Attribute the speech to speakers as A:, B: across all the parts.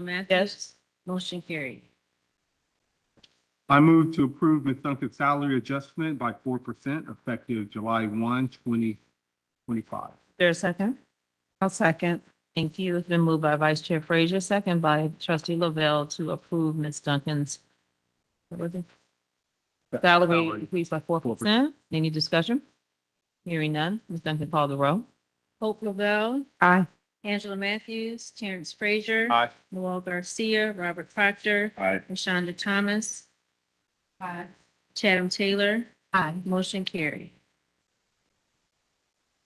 A: Matthews?
B: Yes.
A: Motion carried.
C: I move to approve Ms. Duncan's salary adjustment by four percent effective July 1, 2025.
B: There a second? I'll second. Thank you. It's been moved by Vice Chair Frazier, second by trustee Lavelle to approve Ms. Duncan's what was it? salary
C: Salary.
B: increase by four percent. Any discussion? Hearing none. Ms. Duncan, call the roll.
A: Hope Lavelle,
B: Aye.
A: Angela Matthews, Terrence Frazier.
C: Aye.
A: Noel Garcia, Robert Proctor,
C: Aye.
A: Rashonda Thomas. Aye. Chatham Taylor.
B: Aye.
A: Motion carried.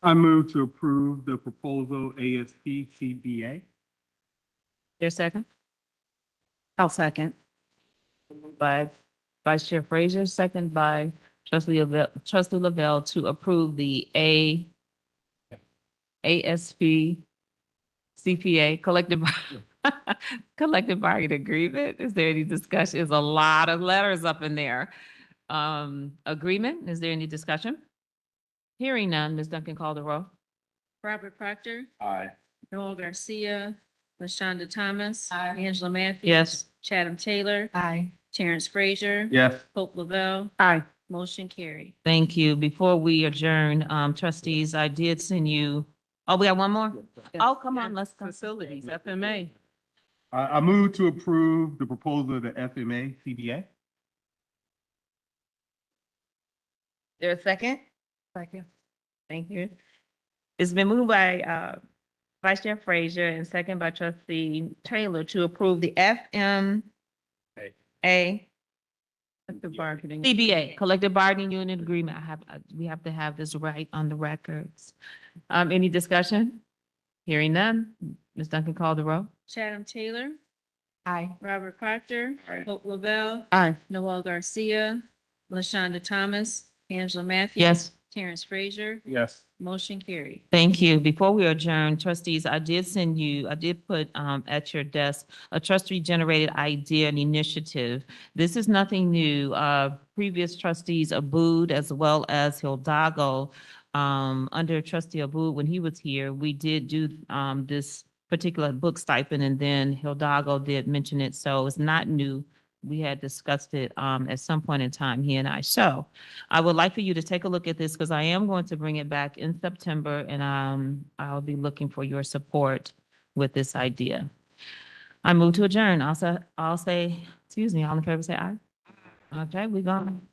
C: I move to approve the proposal ASP CBA.
B: There a second? I'll second. By Vice Chair Frazier, second by trustee Lavelle, trustee Lavelle to approve the A ASP CPA collective bar- collective bargaining agreement. Is there any discussion? There's a lot of letters up in there. Um, agreement, is there any discussion? Hearing none, Ms. Duncan call the roll.
A: Robert Proctor,
C: Aye.
A: Noel Garcia, Lashonda Thomas. Angela Matthews.
B: Yes.
A: Chatham Taylor,
B: Aye.
A: Terrence Frazier.
C: Yes.
A: Hope Lavelle,
B: Aye.
A: motion carried.
B: Thank you. Before we adjourn, um, trustees, I did send you, oh, we got one more? Oh, come on, let's. Facilities, FMA.
C: I, I move to approve the proposal of the FMA CBA.
B: There a second? Second. Thank you. It's been moved by, uh, Vice Chair Frazier and second by trustee Taylor to approve the FMA.
C: Hey.
B: Collective bargaining. CBA, collective bargaining unit agreement. I have, I- we have to have this right on the records. Um, any discussion? Hearing none. Ms. Duncan called the roll.
A: Chatham Taylor,
B: Aye.
A: Robert Proctor.
C: Aye.
A: Hope Lavelle,
B: Aye.
A: Noel Garcia, Lashonda Thomas, Angela Matthews.
B: Yes.
A: Terrence Frazier,
C: Yes.
A: motion carried.
B: Thank you. Before we adjourn, trustees, I did send you, I did put um, at your desk a trustee generated idea and initiative. This is nothing new. Uh, Previous trustees Abud as well as Hildago, um, under trustee Abud, when he was here, we did do um, this particular book stipend and then Hildago did mention it. So it's not new. We had discussed it um, at some point in time, he and I. So I would like for you to take a look at this because I am going to bring it back in September and um, I'll be looking for your support with this idea. I move to adjourn. I'll say, I'll say, excuse me, all in favor say aye. Okay, we gone.